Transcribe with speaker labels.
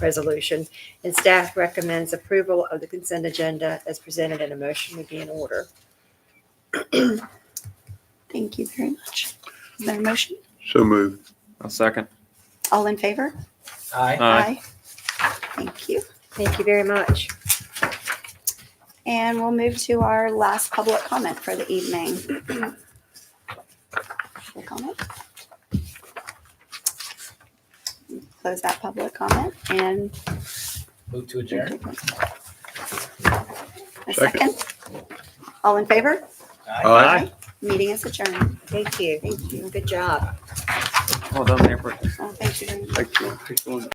Speaker 1: resolution, and staff recommends approval of the consent agenda as presented, and a motion would be in order.
Speaker 2: Thank you very much. Is there a motion?
Speaker 3: So moved.
Speaker 4: I'll second.
Speaker 2: All in favor?
Speaker 5: Aye.
Speaker 2: Aye. Thank you.
Speaker 1: Thank you very much.
Speaker 2: And we'll move to our last public comment for the evening. Public comment. Close that public comment and
Speaker 5: Move to adjourn.
Speaker 2: a
Speaker 3: Second.
Speaker 2: second. All in favor?
Speaker 3: Aye.
Speaker 2: Meeting is adjourned.
Speaker 1: Thank you.
Speaker 2: Thank you.
Speaker 1: Good job.
Speaker 4: Well done, Mayor Pro Tem.
Speaker 2: Well, thank you very much.
Speaker 3: Excellent, excellent.